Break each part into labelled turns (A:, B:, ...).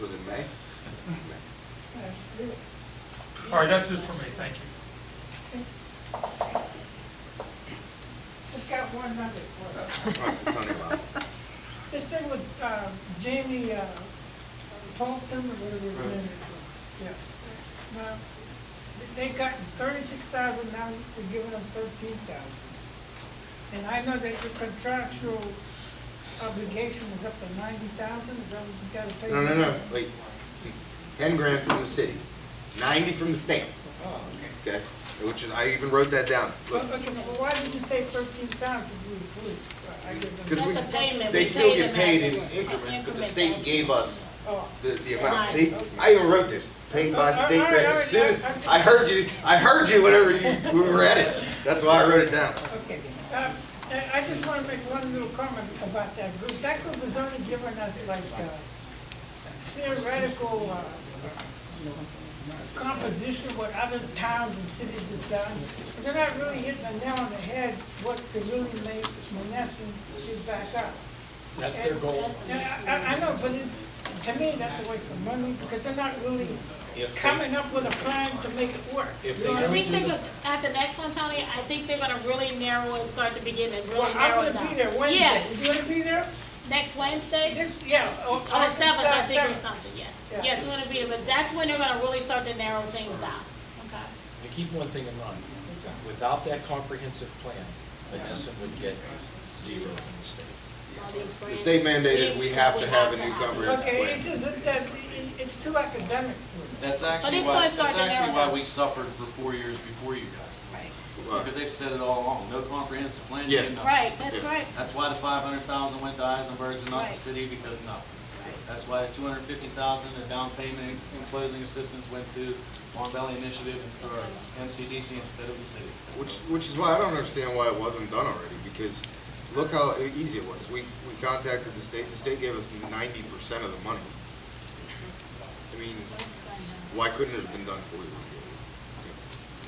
A: Was it May?
B: All right, that's it for me, thank you.
C: I've got one other question.
A: Uh, It's only about,
C: This thing with uh, Jamie uh, Tolton, or whatever his name is. Yeah. Now, they got thirty-six thousand, now we're giving them thirteen thousand. And I know that your contractual obligation is up to ninety thousand, is that what you gotta pay?
A: no, no, no, wait. Ten grand from the city, ninety from the state,
C: Oh, okay.
A: okay? Which is, I even wrote that down.
C: Well, Okay, now, why did you say thirteen thousand, you include? I give
A: Because
C: them,
A: we,
D: That's a payment.
A: they
D: We
A: still
D: pay
A: get
D: them
A: paid
D: as
A: in
D: it-
A: increments, but the
D: increments
A: state
D: as-
A: gave us
C: oh.
A: the, the amount.
D: Right.
A: See, I even wrote this, paid by state,
C: All right, all
A: as
C: right,
A: soon,
C: all right.
A: I heard you, I heard you whenever you, we were at it. That's why I wrote it down.
C: Okay, uh, I- I just want to make one little comment about that group. That group was only giving us like uh, theoretical uh, composition what other towns and cities have done. But They're not really hitting the nail on the head what could really make Monessen should back up.
E: That's their goal.
C: And I- I, I know, but it's, to me, that's a waste of money because they're not really
E: If they-
C: coming up with a plan to make it work.
E: If
C: You
E: they
C: know what I
D: I
E: don't
C: mean?
D: think they're, gonna- at the next one, Tony, I think they're gonna really narrow it, start to begin and
C: Well,
D: really narrow
C: I'm
D: it down.
C: gonna be there
D: Yeah,
C: Wednesday. You gonna be there?
D: next Wednesday,
C: This, yeah. On
D: on the seventh, I think, or something, yes.
C: Yeah.
D: Yes, we're gonna be there, but that's when they're gonna really start to narrow things down, okay?
E: And keep one thing in mind, without that comprehensive plan, Menneson would get zero from the state.
D: All these
A: The
D: grants.
A: state mandated we have to have a new
C: Okay, it's
A: comprehensive plan.
C: just that, that- it- it's too academic for
F: That's
D: But
F: actually
D: it's gonna
F: why,
D: start
F: that's
D: to
F: actually
D: narrow
F: why
D: down.
F: we suffered for four years before you guys.
A: Right.
F: Because they've said it all along, no comprehensive plan, you
A: Yeah.
F: get nothing.
D: Right, that's
A: Yeah.
D: right.
F: That's why the five hundred thousand went to Eisenberg's and not
D: Right.
F: the city, because nothing. That's why the two hundred fifty thousand in down payment and closing assistance went to Mon Valley Initiative or MCDC instead of the city.
A: Which, which is why I don't understand why it wasn't done already, because look how e- easy it was. We, we contacted the state, the state gave us ninety percent of the money. I mean, why couldn't it have been done for you?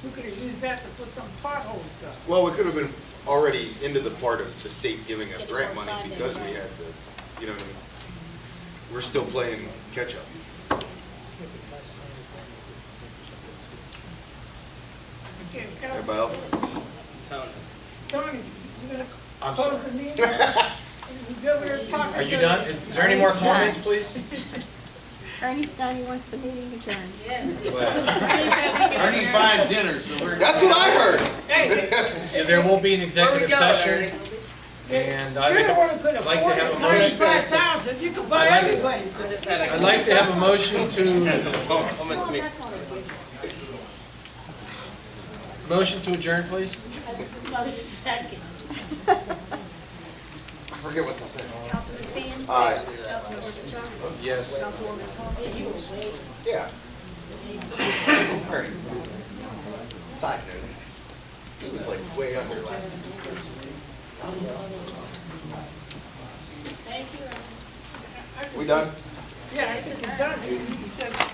C: We could have used that to put some potholes up.
A: Well, we could have been already into the part of the state giving us grant money because we had the, you know, what I mean? we're still playing catch-up.
C: Okay, can I-
A: Everybody else?
C: Tony, you gonna
E: I'm
C: close the
E: sorry.
C: meeting? You're over there talking
E: Are you
C: to-
E: done? Is there any more comments, please?
G: Ernie's done, he wants the meeting adjourned.
F: Ernie's buying dinner, so we're.
A: That's what I heard.
C: Hey,
E: And there will be an executive session, and I
C: you're
E: think
C: the one who could
E: I'd like to
C: afford
E: have a
C: it,
E: motion.
C: ninety-five thousand, you could buy
E: I'd like-
C: everybody.
E: I'd like to have a motion to, motion to adjourn, please.
D: Another second.
A: I forget what to say. Aye.
E: Yes.
A: Yeah. Alright. Side note, he was like way under last year.
D: Thank you.
A: We done?
C: Yeah, I think you're done. You said